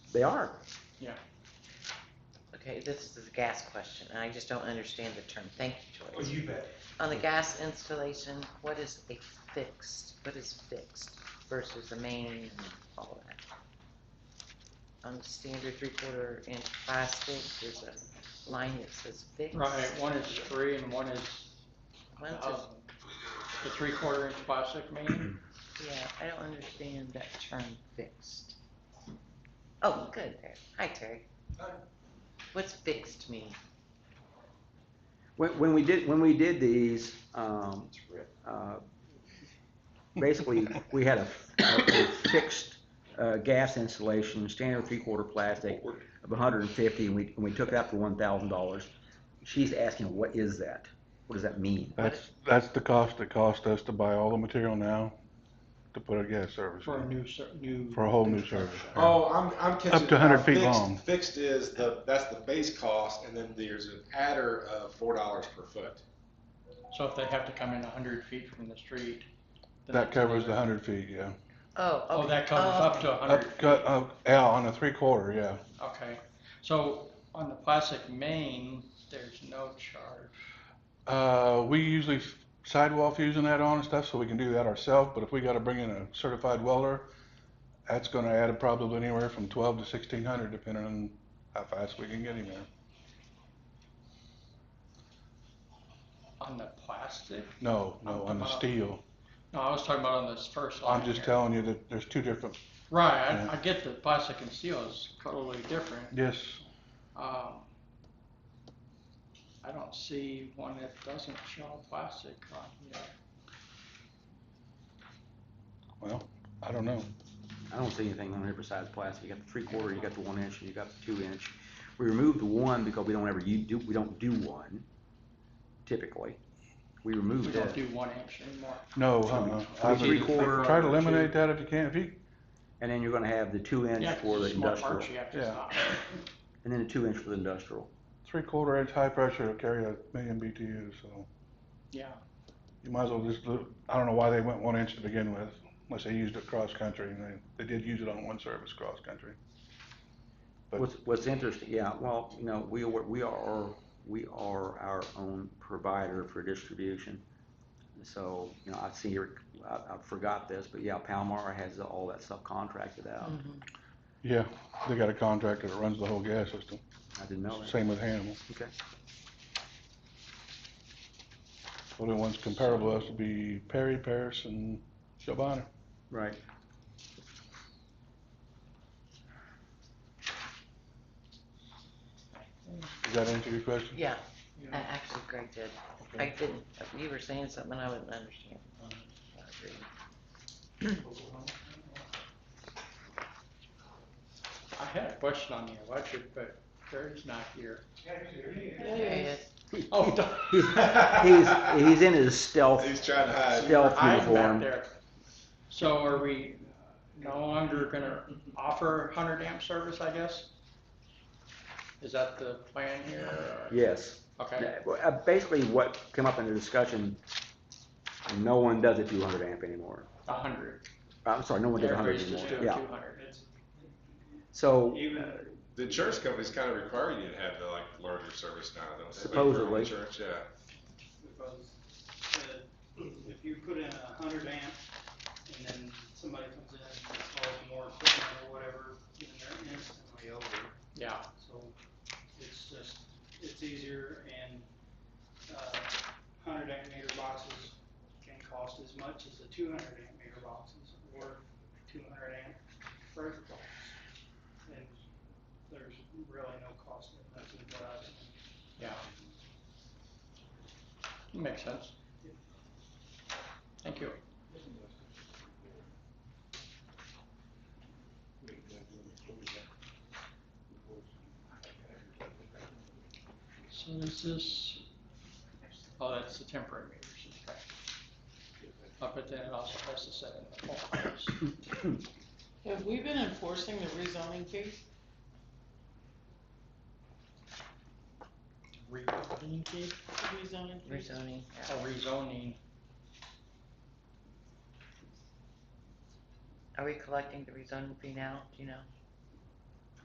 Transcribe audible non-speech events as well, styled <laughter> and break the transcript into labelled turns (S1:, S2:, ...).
S1: They are.
S2: Okay, this is a gas question, and I just don't understand the term. Thank you,
S3: Oh,
S2: Joyce.
S3: you bet.
S2: On the gas installation, what is a fixed, what is fixed versus the main and all of that? On the standard three-quarter inch plastic, there's a line that says fixed.
S4: Right, one is free and one is,
S2: One
S4: um,
S2: says-
S4: the three quarter inch plastic main.
S2: yeah, I don't understand that term fixed. Oh, good, there. Hi, Terry.
S3: Hi.
S2: What's fixed mean?
S1: When, when we did, when we did these, um, uh, basically, we had a, a fixed, uh, gas installation, standard three-quarter plastic of hundred and fifty, and we, and we took it up for one thousand dollars. She's asking, what is that? What does that mean?
S5: That's, that's the cost it cost us to buy all the material now to put a gas service
S4: for a
S5: in,
S4: new, ser- new.
S5: for a whole new service.
S3: Oh, I'm, I'm catching.
S5: Up to 100 feet
S3: fixed-
S5: long.
S3: Fixed is the, that's the base cost, and then there's an adder of four dollars per foot.
S4: So if they have to come in a hundred feet from the street. then
S5: That
S4: it's
S5: covers the
S4: another-
S5: hundred feet, yeah.
S2: Oh,
S4: Oh,
S2: okay.
S4: that covers
S2: Oh,
S4: up to a
S5: Up,
S4: hundred,
S5: cut, up, out on a three quarter, yeah.
S4: okay. So on the plastic main, there's no charge.
S5: Uh, we usually f- sidewall fusing that on and stuff, so we can do that ourselves, but if we gotta bring in a certified welder, that's gonna add probably anywhere from twelve to sixteen hundred, depending on how fast we can get him there.
S4: On the plastic?
S5: No, no, on the steel.
S4: No, I was talking about on this first line
S5: I'm just
S4: here.
S5: telling you that there's two different,
S4: Right,
S5: Yeah.
S4: I, I get that plastic and steel is totally different.
S5: yes,
S4: Um, I don't see one that doesn't show plastic on here.
S5: well, I don't know.
S1: I don't see anything on here besides plastic. You got the three-quarter, you got the one-inch, and you got the two-inch. We removed the one because we don't ever, u- do, we don't do one typically. We
S4: We
S1: removed
S4: don't
S1: it,
S4: do one inch anymore.
S5: No, uh-uh. I
S1: Three
S5: would
S1: quarter
S5: try to
S1: on the
S5: eliminate
S1: two.
S5: that if you can. If you,
S1: and then you're gonna have the two-inch
S4: Yeah, 'cause
S1: for the
S4: it's small
S1: industrial,
S4: parts you have to
S5: Yeah.
S4: stop.
S1: and then the two-inch for the industrial.
S5: three quarter inch high pressure will carry a million BTU, so
S4: Yeah,
S5: you might as well just do, I don't know why they went one inch to begin with, unless they used it cross country and they, they did use it on one service cross country. But-
S1: What's, what's interesting, yeah, well, you know, we, are- we are, we are our own provider for distribution. So, you know, I see, your- I, I forgot this, but yeah, Palmar has all that stuff contracted out.
S2: Mhm.
S5: Yeah, they got a contractor that runs the whole gas
S4: Mm-hmm.
S5: system.
S1: I didn't know that.
S5: Same with Hannibal.
S1: Okay.
S5: Only ones comparable to us would be Perry, Paris and Shelby.
S1: Right.
S5: Does that answer your question?
S2: Yeah,
S4: yeah.
S2: I- actually Greg did. I didn't, you were saying something I wouldn't understand. I agree.
S4: I had a question on the electric, but Terry's not here. <laughs>
S2: There he is.
S4: Oh, d-
S3: <laughs>
S1: He's, he's in his stealth,
S3: He's trying to hide.
S1: stealth
S4: I'm back
S1: uniform.
S4: there. So are we uh, no longer gonna offer hundred amp service, I guess? Is that the plan here? or-
S1: Yes.
S4: Okay,
S1: Well, uh, Basically, what came up in the discussion, no one does a two hundred amp anymore.
S4: a hundred.
S1: I'm sorry, no one does a hundred
S4: Everybody's just
S1: anymore,
S4: doing two
S1: yeah.
S4: hundred.
S1: So,
S3: Even the insurance companies kind of require you to have the like larger service now, don't they?
S1: Supposedly.
S3: Insurance, yeah.
S6: because uh, if you put in a hundred amp and then somebody comes in and installs more equipment or whatever, then they're instantly over.
S4: Yeah.
S6: So it's just, it's easier and, uh, hundred amp meter boxes can cost as much as the two hundred amp meter boxes or two hundred amp furnace box. And there's really no cost difference in what I've seen.
S4: Yeah. Makes sense. Thank you. So is this, oh, that's the temporary meters, okay. Uh, But then it also has to set in the poles.
S7: Have we been enforcing the rezoning fee?
S4: Rezoning fee?
S7: The Rezoning fee?
S2: Rezoning, yeah.
S4: Oh, rezoning,
S2: Are we collecting the rezoning fee now? Do you know?